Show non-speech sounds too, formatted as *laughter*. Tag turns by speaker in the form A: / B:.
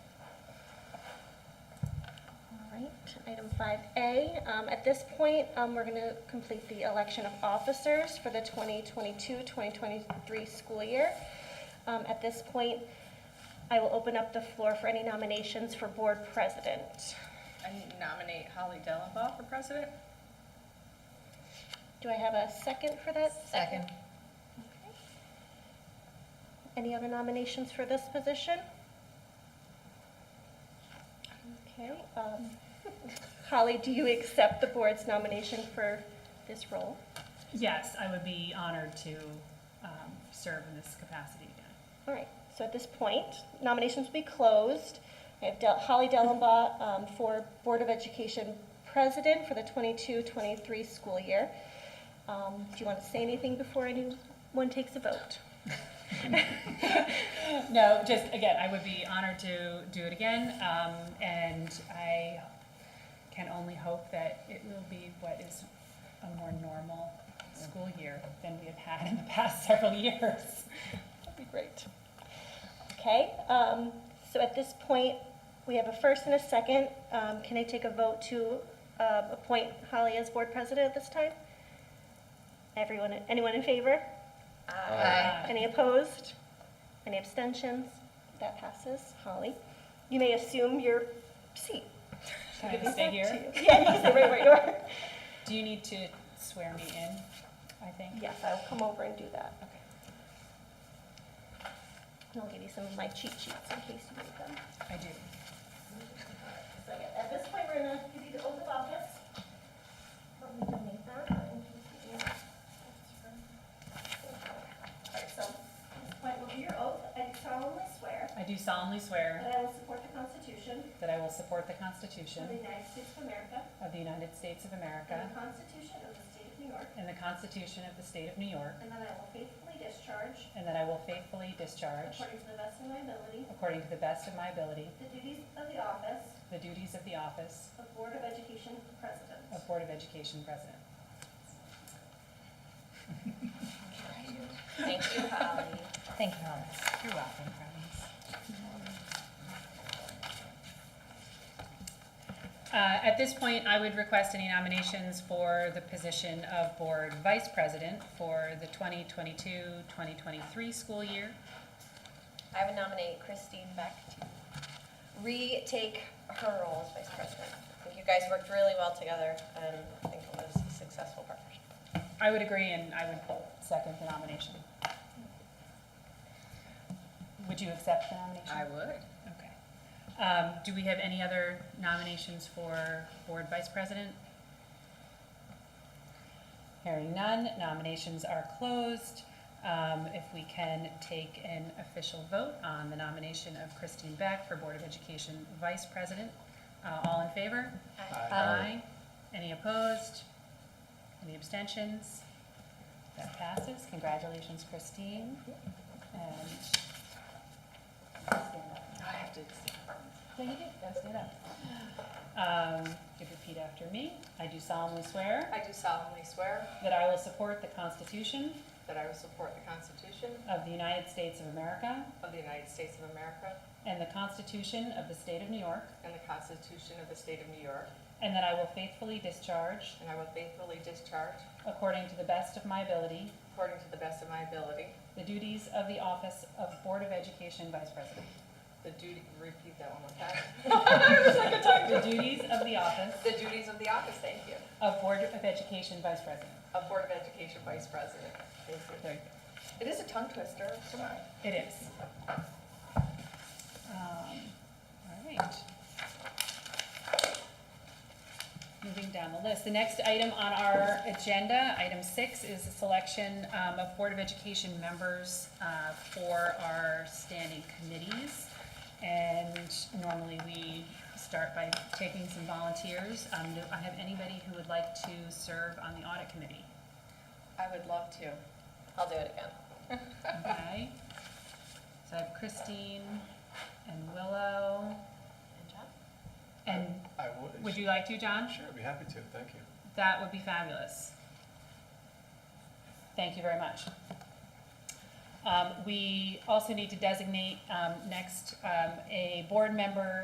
A: action item 5A. Um, At this point, um, we're going to complete the election of officers for the 2022-2023 school year. Um, At this point, I will open up the floor for any nominations for board president.
B: I nominate Holly Dellenbaugh for president.
A: Do I have a second for that?
C: Second.
A: Okay. Any other nominations for this position? Okay. um, *laughs* Holly, do you accept the board's nomination for this role?
D: Yes, I would be honored to um, serve in this capacity again.
A: All right, so at this point, nominations will be closed. I have Del- Holly Dellenbaugh um, for Board of Education President for the 22-23 school year. Um, Do you want to say anything before anyone takes a vote?
D: No, just, again, I would be honored to do it again, um, and I can only hope that it will be what is a more normal school year than we have had in the past *laughs* several years.
A: That'd be great. Okay, um, so at this point, we have a first and a second. Um, Can I take a vote to um, appoint Holly as Board President at this time? Everyone, anyone in favor?
D: Uh,
C: Aye.
A: Any opposed? Any abstentions? That passes. Holly, you may assume your seat.
D: Can I just stay here?
A: Yeah, you can stay right where you are. *laughs*
D: Do you need to swear me in, I think?
A: Yes, I will come over and do that.
D: Okay.
A: And I'll give you some of my cheat sheets in case you need them.
D: I do.
A: So yeah, at this point, we're going to give you the oath of office. Let me donate that in case you need. All right, so at this point will be your oath. I solemnly swear
D: I do solemnly swear
A: that I will support the Constitution
D: that I will support the
A: of the
D: Constitution
A: United States of America
D: of the United States of America
A: and the Constitution of the State of New York,
D: and the Constitution of the State of New York,
A: and that I will faithfully discharge,
D: and that I will faithfully discharge,
A: according to the best of my ability,
D: according to the best of my ability,
A: the duties of the office
D: the duties of the office
A: of Board of Education President.
D: of Board of Education President.
C: Thank you, Holly. Thank you, Holly. You're welcome, Promise.
D: Uh, At this point, I would request any nominations for the position of Board Vice President for the 2022-2023 school year.
C: I would nominate Christine Beck to retake her role as vice president. I think you guys worked really well together, and I think it was a successful partnership.
D: I would agree, and I would second the nomination. Would you accept the nomination?
B: I would.
D: Okay. Um, Do we have any other nominations for Board Vice President? Hearing none, nominations are closed. Um, If we can take an official vote on the nomination of Christine Beck for Board of Education Vice President. Uh, All in favor? Aye. Any opposed? Any abstentions? That passes. Congratulations, Christine. And stand up.
B: I have to.
D: Yeah, you did, go stand up. Um, you could repeat after me. I do solemnly swear
B: I do solemnly swear
D: that I will support the Constitution
B: that I will support the Constitution
D: of the United States of America
B: of the United States of America
D: and the Constitution of the State of New York,
B: and the Constitution of the State of New York,
D: and that I will faithfully discharge,
B: and I will faithfully discharge,
D: according to the best of my ability,
B: according to the best of my ability,
D: the duties of the office of Board of Education Vice President.
B: the duty, repeat that one more time,
D: The duties of the office
B: the duties of the office, thank you,
D: of Board of Education Vice President.
B: of Board of Education Vice President. Thank you.
D: There you
B: It is a tongue twister, come on.
D: go. It is. Um, All right. Moving down the list, the next item on our agenda, item six, is the selection um, of Board of Education members uh, for our standing committees. And normally we start by taking some volunteers. Um, Do I have anybody who would like to serve on the audit committee?
B: I would love to.
C: I'll do it again.
D: Okay. So I have Christine and Willow.
C: Good job.
D: And
E: I would.
D: would you like to, John?
E: Sure, I'd be happy to, thank you.
D: That would be fabulous. Thank you very much. Um, we also need to designate, um, next, um, a board member